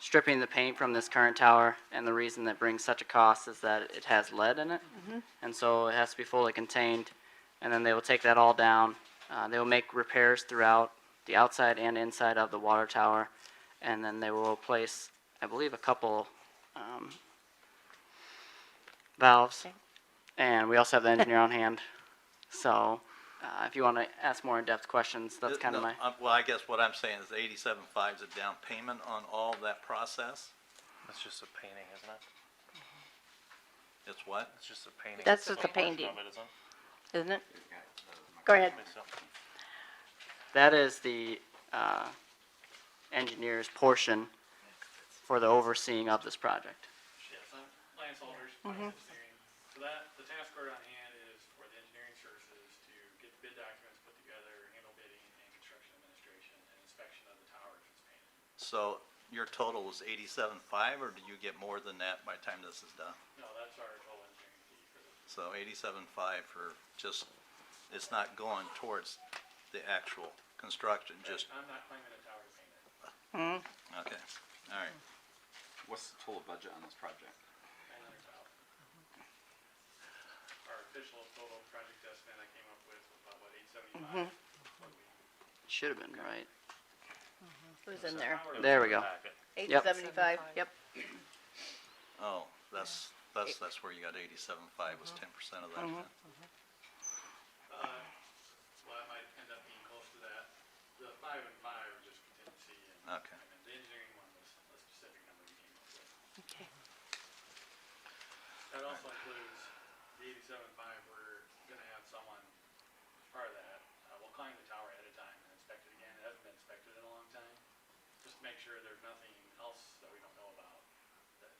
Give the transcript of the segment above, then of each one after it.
stripping the paint from this current tower, and the reason that brings such a cost is that it has lead in it, and so it has to be fully contained. And then they will take that all down. Uh, they will make repairs throughout the outside and inside of the water tower, and then they will place, I believe, a couple um, valves. Okay. And we also have the engineer on hand, so uh, if you want to ask more in-depth questions, that's Uh, kind of no, my. uh, Well, I guess what I'm saying is eighty-seven five is a down payment on all that process. That's just a painting, isn't it? It's what? That's just a painting. That's Some just a portion painting. of it, isn't it? isn't it? Go ahead. Think so. That is the uh, engineer's portion for the overseeing of this project. Yes, I'm Lance Alders, Finance Engineering. So that, the task order on hand is for the engineering services to get the bid documents put together, handle bidding and construction administration and inspection of the tower if it's painted. So your total was eighty-seven five, or do you get more than that by the time this is done? No, that's our total engineering fee for the, So eighty-seven five for just, it's not going towards the actual construction, just, I'm not claiming a tower payment. okay, all right. What's the total budget on this project? nine hundred thousand. Our official total project estimate I came up with was about, what, eight seventy-five? Should have been right. It was in there. There we go. Uh, Eight Yep. seventy-five, yep. Oh, that's, that's, that's where you got eighty-seven five Mm-hmm. was ten percent of that. huh? Uh, well, I might end up being close to that. The five and five are just contingency and. Okay. And then the engineering one was a specific number we came up with. Okay. That also includes the eighty-seven five, we're gonna have someone, as part of that, uh, will climb the tower ahead of time and inspect it again. It hasn't been inspected in a long time. Just to make sure there's nothing else that we don't know about, that,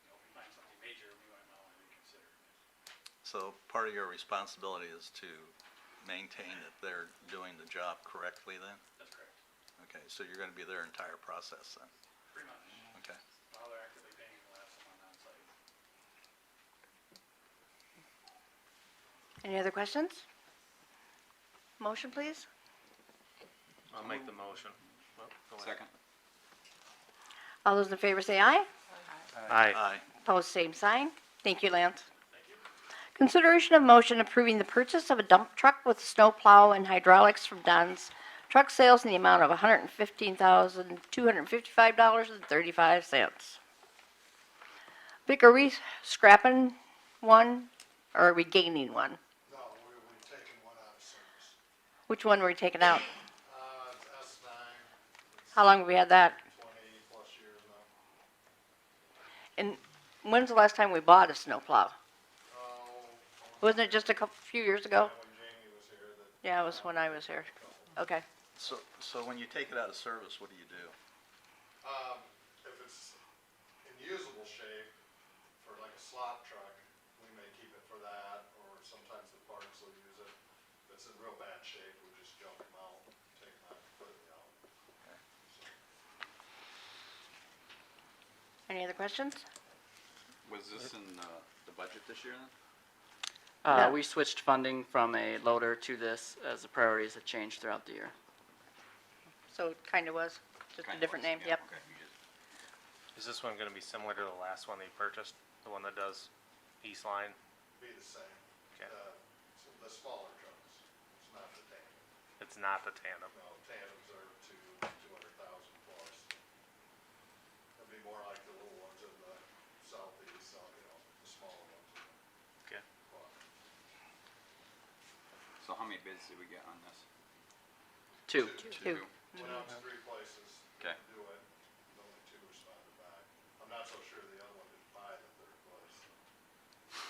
you know, if we find something major, we might not want to reconsider. So part of your responsibility is to maintain that they're doing the job correctly then? That's correct, Okay, so you're gonna be their entire process then, pretty much. okay? While they're actively paying, we'll have someone on site. Any other questions? Motion, please? I'll make the motion. Well, go ahead. Second? All those in favor say aye. Aye. Opposed, same sign. Thank you, Lance. Thank you. Consideration of motion approving the purchase of a dump truck with snow plow and hydraulics from Don's Truck Sales in the amount of $115,255.35. Vic, are we scrapping one or are we gaining one? No, we, we've taken one out of service. Which one were we taking out? Uh, it's S nine, How long have we had that? twenty plus years now. And when's the last time we bought a snow plow? Oh, Wasn't it just a couple, few years ago? when Jamie was here, that Yeah, it was when I was here. Okay. So, so when you take it out of service, what do you do? Um, if it's in usable shape for like a slot truck, we may keep it for that, or sometimes the parks will use it. If it's in real bad shape, we just jump them out, take them out completely out. Any other questions? Was this in uh, the budget this year then? Uh, No. We switched funding from a loader to this as the priorities have changed throughout the year. So it kind of was, just a Kinda different was, name, yeah, yep. okay, you just- Is this one gonna be similar to the last one they purchased? The one that does East Line? Be the same. Okay. Uh, so the smaller trucks, it's not the tandem. It's not the tandem. No, tandems are two, two hundred thousand plus. It'd be more like the little ones in the southeast, so, you know, the smaller ones. Okay. But So how many bids did we get on this? Two. Two. Went out to three places to Okay. do it, and only two responded back. I'm not so sure the other one didn't buy the third place.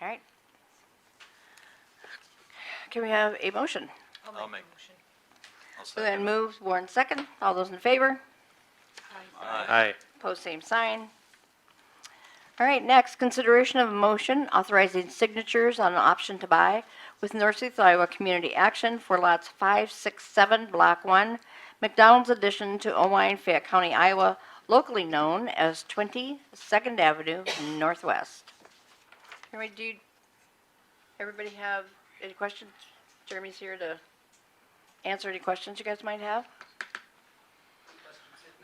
All right. Can we have a motion? I'll make. I'll Who then second. moves, Warren second, all those in favor, Aye. Aye. Post same sign. All right, next, consideration of a motion authorizing signatures on an option to buy with Northeast Iowa Community Action for lots 5, 6, 7, Block 1, McDonald's addition to Owine, Fayette County, Iowa, locally known as 22nd Avenue Northwest. Jeremy, do you, everybody have any questions? Jeremy's here to answer any questions you guys might have.